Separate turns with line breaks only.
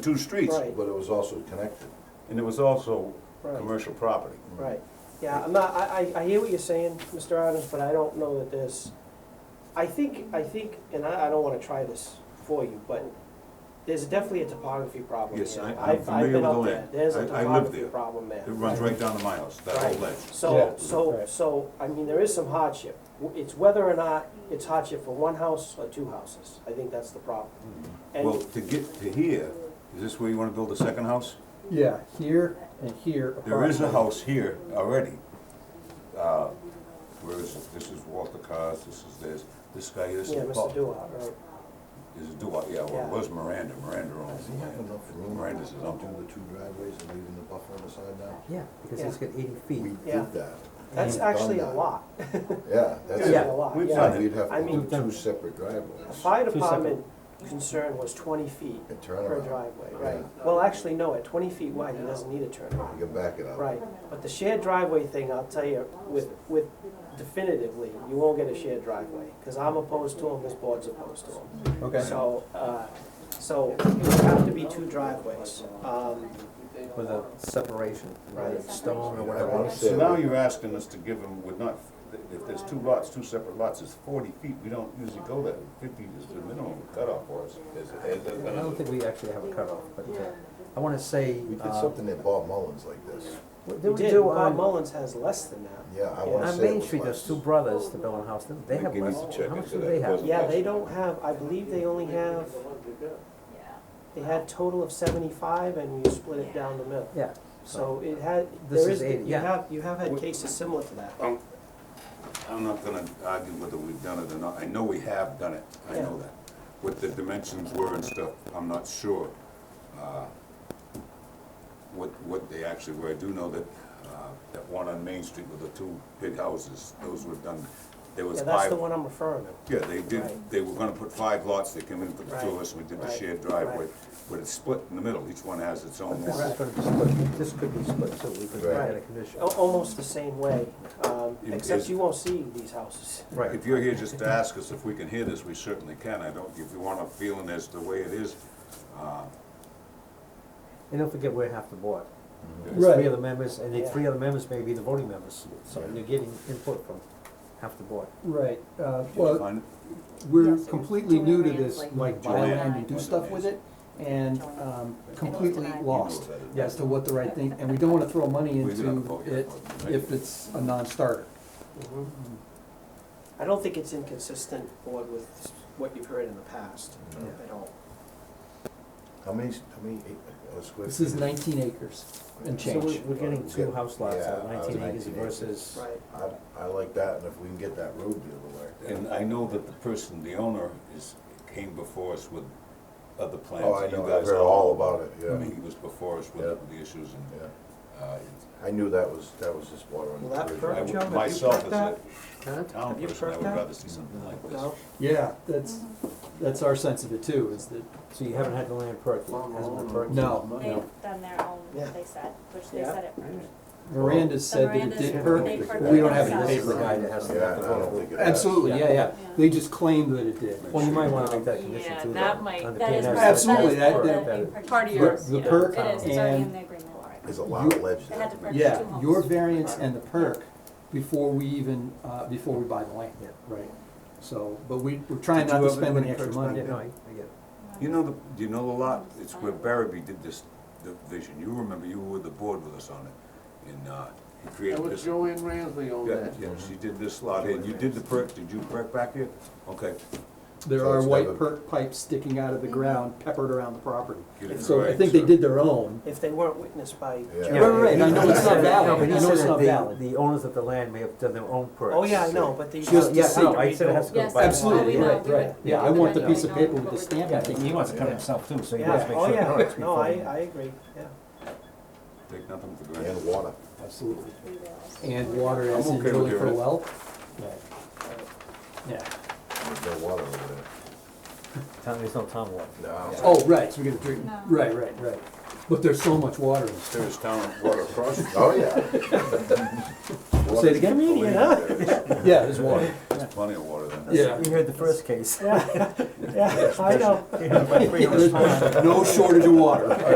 two streets,
Right.
But it was also connected.
and it was also
Right.
commercial property.
Right, yeah, I'm not, I, I, I hear what you're saying, Mr. Adams, but I don't know that there's, I think, I think, and I, I don't wanna try this for you, but there's definitely a topography problem here.
Yes, I- I'm
I've- I've
familiar
been
with
up
the
there.
land.
There's
I- I
a
lived
topography
there.
problem there.
It runs right down to my house, that whole
Right.
ledge.
So,
Yeah.
so,
Right.
so, I mean, there is some hardship. W- It's whether or not it's hardship for one house or two houses. I think that's the problem.
Hmm. Well,
And,
to get to here, is this where you wanna build a second house?
Yeah, here and here.
There is a
approximately.
house here already. Uh, Where is it? This is Walter Cars, this is this, this guy, this is
yeah,
Paul.
Mr. Duhart, right,
Mm-hmm.
This is Duhart, yeah, well,
Yeah.
it was Miranda, Miranda owns
Does
the
he have
land.
enough room
Miranda's is
to
owned.
do the two driveways and leaving the buffer on the side now?
Yeah, because it's got eighty
We
feet.
Yeah.
did that.
that's
We've done
actually a
that.
lot.
Yeah,
That's
that's,
a lot,
We've
yeah.
done
yeah, we'd have
I
to do
mean-
two separate
The
driveways.
fire
Two separate.
department concern was twenty feet
And
per
turnaround,
driveway, right?
Yeah.
Well, actually, no, at twenty feet wide, he doesn't need a turnaround.
you can back it up.
Right, but the shared driveway thing, I'll tell you, with, with definitively, you won't get a shared driveway, because I'm opposed to them, this board's opposed to them.
Okay.
So, uh, so it would have to be two driveways, um,
With a separation,
Right.
right, stone or
I
whatever.
wanna
So
say,
now you're asking us to give them, we're not, if there's two lots, two separate lots, it's forty feet, we don't usually go there. Fifty is the minimum cutoff for us. Is- is-
I don't think we actually have a cutoff, but uh, I wanna say,
we did
uh,
something at Bob Mullins like this.
what
we
did we
did,
do um,
Bob
on,
Mullins has less than that.
Yeah, I wanna
on
say it
Main
was
Street, those
less.
two brothers that built a house, didn't they have
Give
less,
us a check
how much
into
do
that.
they have?
Wasn't-
Yeah, they don't have, I believe they only have, they had total of seventy-five, and you split it down the middle.
Yeah,
So it had,
This
there
is
is,
80,
you
yeah.
have, you have had cases similar to that.
Um, I'm not gonna argue whether we've done it or not, I know we have done it, I know
Yeah.
that. What the dimensions were and stuff, I'm not sure, uh, what, what they actually were. I do know that, uh, that one on Main Street with the two big houses, those were done, there was
Yeah,
five.
that's the one I'm referring to.
Yeah, they did,
Right.
they were gonna put five lots, they came in for the two of us, we did the
Right,
shared
right,
driveway,
right.
but it's split in the middle, each one has its own
But this is
one.
gonna be split, this could be split, so we could make
Right.
that a condition.
Al- Almost the same way, um,
It
except
is-
you won't see these houses.
Right.
If you're here just to ask us if we can hear this, we certainly can, I don't, if you want a feeling as to the way it is, uh,
And don't forget, we're half the board. There's
Right.
three other members, and the
Yeah.
three other members may be the voting members, so you're getting input from half the board.
Right, uh,
did you
well,
find it?
we're
Yes.
completely new to
Joanne
this,
Ramsey.
like,
Joanne.
bylaw, and we do stuff with it, and, um, completely
Joanne.
lost
You know that.
as to what the right thing, and we don't wanna throw money
We didn't
into
vote yet.
it if it's a non-starter.
Mm-hmm.
I don't think it's inconsistent, Board, with what you've heard in the past
No.
at all.
How many, how many, eight, uh, square?
This is
feet?
nineteen acres and
So we're,
change.
we're getting two house lots
Yeah,
out of nineteen
out of
acres
19 acres.
versus
Right.
I, I like that, and if we can get that road the other way.
And I know that the person, the owner, is, came before us with other plans.
Oh, I
You
know, I've
guys
heard all about it,
I
yeah,
mean, he was before us with
Yeah.
the issues and,
yeah.
uh,
I knew that was, that was just water on
Will
the
that
bridge.
hurt?
I
Joe, have
would,
you
myself as
heard
a
Kent?
town
Have you
person, I
heard
would
that?
rather see something like this.
No?
Yeah, that's,
Mm-hmm.
that's our sense of it too, is that,
So you haven't had the land perked, it hasn't been perked?
no, no.
They've done their own,
Yeah.
they said, which they
Yeah.
said it.
Miranda
So
said that it
Miranda's-
did
they
perk,
perked
we don't
it
have any
themselves.
paper guide that has to
Yeah,
have
I
the vote.
don't think it has.
absolutely, yeah, yeah,
Yeah.
they just claimed that it did.
Well, you might wanna make that a condition
Yeah,
too, though.
that might-
on the
That is.
PNS.
Absolutely,
that
that-
is
that-
the big
Part of
The-
your-
purchase.
The
Yeah.
perk
It is, it's already in
and,
the agreement already.
There's a lot of ledge
They had to
there.
purchase two
yeah,
homes.
your variance and the perk before we even, uh, before we buy the land,
Yeah.
right? So, but we, we're trying
Did you
not to
have
spend
anybody
any extra
perked
money.
Yeah, no, I, I get it.
You know the, do you know the lot, it's where Barrowby did this, the vision, you remember, you were with the board with us on it, and, uh, he created this.
Joanne Ramsey on
Yeah, yeah, she did this lot, and you did the perk, did you perk back here? Okay.
There
So
are
it's
white
never-
perk pipes sticking out
Mm-hmm.
of the ground peppered around the property.
you did it
So I
right,
think they
so-
did their own.
If they weren't witnessed by,
Yeah.
Right, right, I know it's not
No,
valid,
but
I
he
know
said
it's not
that
valid.
the, the owners of the land may have done their own perks.
oh yeah, I know, but these.
Just to
Yes,
see.
no, I said it has to go
Yes,
by.
Absolutely,
Oh, we know,
right,
we
right.
would-
Yeah, I want the
Yeah.
piece of paper with the stamp.
Yeah, he wants to cut himself too, so he wants
Yeah,
to make
oh
sure.
yeah,
it's
no,
before
I,
he-
I agree, yeah.
Take nothing for
And
granted.
water.
Absolutely.
Three wells.
And water
I'm
as in
okay with
drilling
you,
for a
right?
well? Yeah. Yeah.
There's no water over there.
Town, there's no town water.
No.
Yeah.
Oh, right, so we're gonna drink,
No.
right, right, right. But there's so much water in this.
There's town water across.
Oh, yeah.
Say it again?
Comedian, huh?
Yeah, there's water.
There's plenty of water then.
Yeah.
You heard the first case.
Yeah, yeah, I know.
You heard my previous one.
No shortage of water.